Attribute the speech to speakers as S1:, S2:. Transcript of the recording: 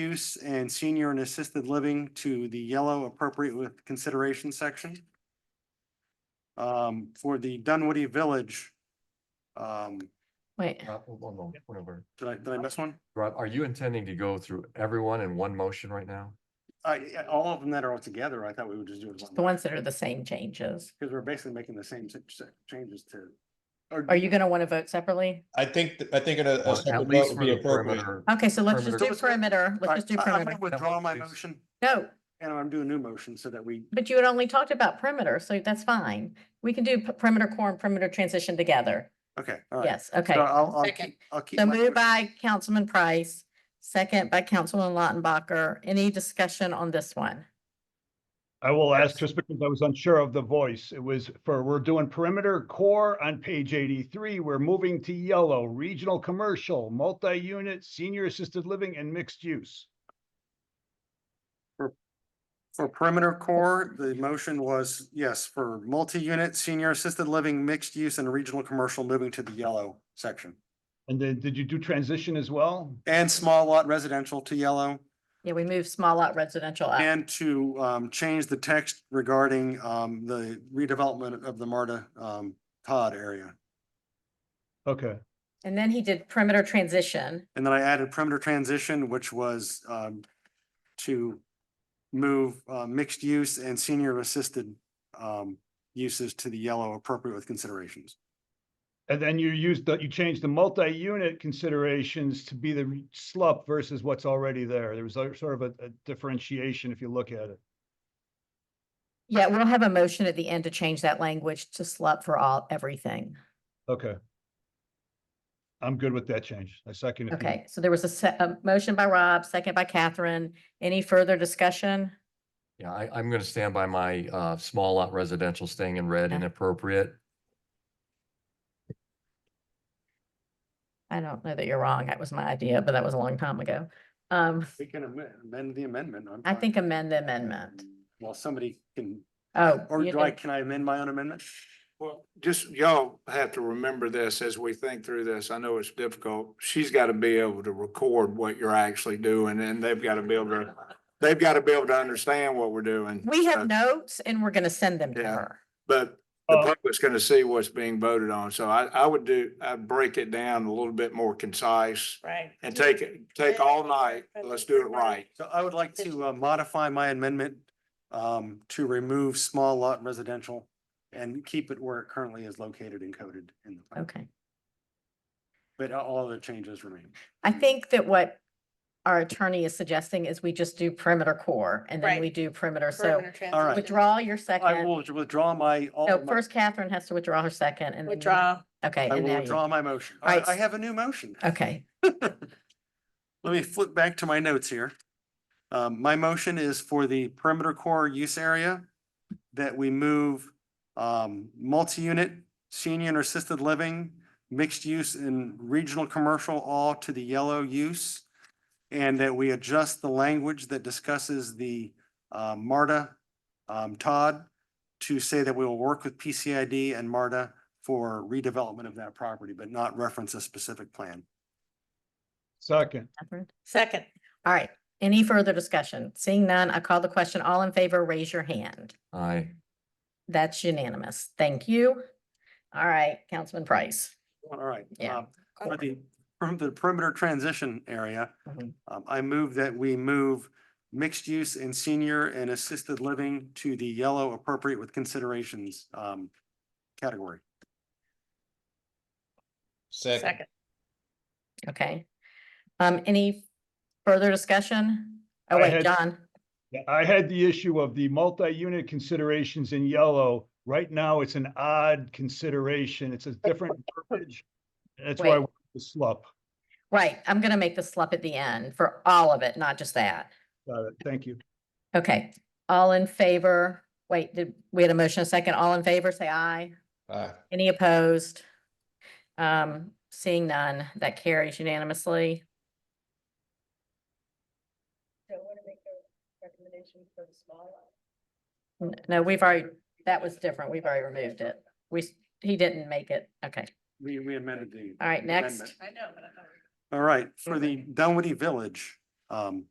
S1: use and senior and assisted living to the yellow appropriate with consideration section. Um, for the Dunwoody Village. Um,
S2: Wait,
S3: Rob, hold on, hold on, whatever.
S1: did I, did I miss one?
S3: Rob, are you intending to go through everyone in one motion right now?
S1: I, I- Uh, all of them that are all together, I thought we would just do it.
S2: the ones that are the same changes.
S1: Because we're basically making the same si- si- changes to. or-
S2: Are you gonna want to vote separately?
S4: I think, th- I think in a- a
S3: Well,
S4: separate
S3: Uh, At
S4: vote
S3: least
S4: would
S3: for
S4: be
S3: the
S4: appropriate.
S3: perimeter.
S2: Okay, so let's just do
S3: Perimeter.
S2: perimeter.
S1: All
S2: Let's
S1: right,
S2: just do
S1: I- I'm gonna
S2: perimeter.
S1: withdraw my
S3: Please.
S1: motion
S2: uh, No,
S1: and I'm doing a new motion so that we,
S2: but you had only talked about perimeter, so that's fine. We can do p- perimeter core and perimeter transition together.
S1: okay, all right.
S2: Yes, okay.
S1: So I'll, I'll
S2: Second.
S1: keep, I'll keep.
S2: So
S1: my motion.
S2: moved by Councilman Price, second by Councilman Lautenbacher. Any discussion on this one?
S5: I will ask just because I was unsure of the voice. It was for, we're doing perimeter core on page eighty-three. We're moving to yellow, regional commercial, multi-unit, senior assisted living and mixed use.
S1: For perimeter core, the motion was, yes, for multi-unit, senior assisted living, mixed use and regional commercial moving to the yellow section.
S5: And then did you do transition as well?
S1: And small lot residential to yellow
S2: Yeah, we moved small lot residential up.
S1: and to um change the text regarding um the redevelopment of the Marta um Todd area.
S5: Okay,
S2: And then he did perimeter transition.
S1: And then I added perimeter transition, which was um to move uh mixed use and senior assisted um uses to the yellow appropriate with considerations.
S5: and then you used the, you changed the multi-unit considerations to be the re- slup versus what's already there. There was a- sort of a a differentiation if you look at it.
S2: Yeah, we'll have a motion at the end to change that language to slut for all, everything.
S5: Okay. I'm good with that change. I second it.
S2: Okay, so there was a se- a motion by Rob, second by Catherine. Any further discussion?
S3: Yeah, I, I'm gonna stand by my, uh, small lot residential staying in red
S2: Okay.
S3: and appropriate.
S2: I don't know that you're wrong. That was my idea, but that was a long time ago. Um,
S1: We can amend amend the amendment. I'm
S2: I
S1: fine.
S2: think amend the amendment.
S1: Well, somebody can,
S2: Oh.
S1: or
S2: you
S1: do I,
S2: did-
S1: can I amend my own amendment?
S6: Well, just y'all have to remember this as we think through this. I know it's difficult. She's got to be able to record what you're actually doing and they've got to be able to, they've got to be able to understand what we're doing.
S2: We
S6: So,
S2: have notes and we're gonna send them to
S6: Yeah.
S2: her.
S6: But the
S5: Uh,
S6: public's going to see what's being voted on. So I, I would do, I'd break it down a little bit more concise
S7: Right.
S6: and take it, take all night. Let's do it right.
S1: So I would like to uh, modify my amendment um, to remove small lot residential and keep it where it currently is located and coded in the. plan.
S2: Okay.
S1: But all other changes remain.
S2: I think that what our attorney is suggesting is we just do perimeter core and then
S7: Right.
S2: we do perimeter. So
S1: All right.
S2: withdraw your
S1: I
S2: second.
S1: will withdraw my. all
S2: No,
S1: of my-
S2: first Catherine has to withdraw her second and. then you-
S7: Withdraw.
S2: Okay.
S1: I
S2: and
S1: will
S2: now you-
S1: withdraw my motion.
S2: All
S1: I,
S2: right.
S1: I have a new motion.
S2: Okay.
S1: Let me flip back to my notes here. Um, my motion is for the perimeter core use area that we move um, multi-unit, senior and assisted living, mixed use and regional commercial all to the yellow use. And that we adjust the language that discusses the uh, MARTA um, Todd to say that we will work with PCID and MARTA for redevelopment of that property, but not reference a specific plan.
S5: Second.
S2: Catherine?
S7: Second.
S2: All right. Any further discussion? Seeing none, I call the question. All in favor, raise your hand.
S3: I,
S2: That's unanimous. Thank you. All right, Councilman Price.
S1: All right.
S2: Yeah.
S1: um, For the, from the perimeter transition area,
S2: Mhm.
S1: um, I move that we move mixed use and senior and assisted living to the yellow appropriate with considerations, um, category.
S4: Second,
S7: Second.
S2: Okay. Um, any further discussion? Oh,
S5: I
S2: wait,
S5: had-
S2: John.
S5: Yeah, I had the issue of the multi-unit considerations in yellow. Right now, it's an odd consideration. It's a different verbiage. and That's why I
S2: Wait.
S5: went with the slup.
S2: Right, I'm gonna make the slup at the end for all of it, not just that.
S5: Got it. Thank you.
S2: Okay, all in favor? Wait, did, we had a motion a second. All in favor, say aye.
S4: aye,
S2: Any opposed? Um, seeing none, that carries unanimously. N- No, we've already, that was different. We've already removed it. We, s- he didn't make it. Okay,
S1: We, we amended the.
S2: all right, next.
S1: amendment. All right, for the Dunwoody Village, um,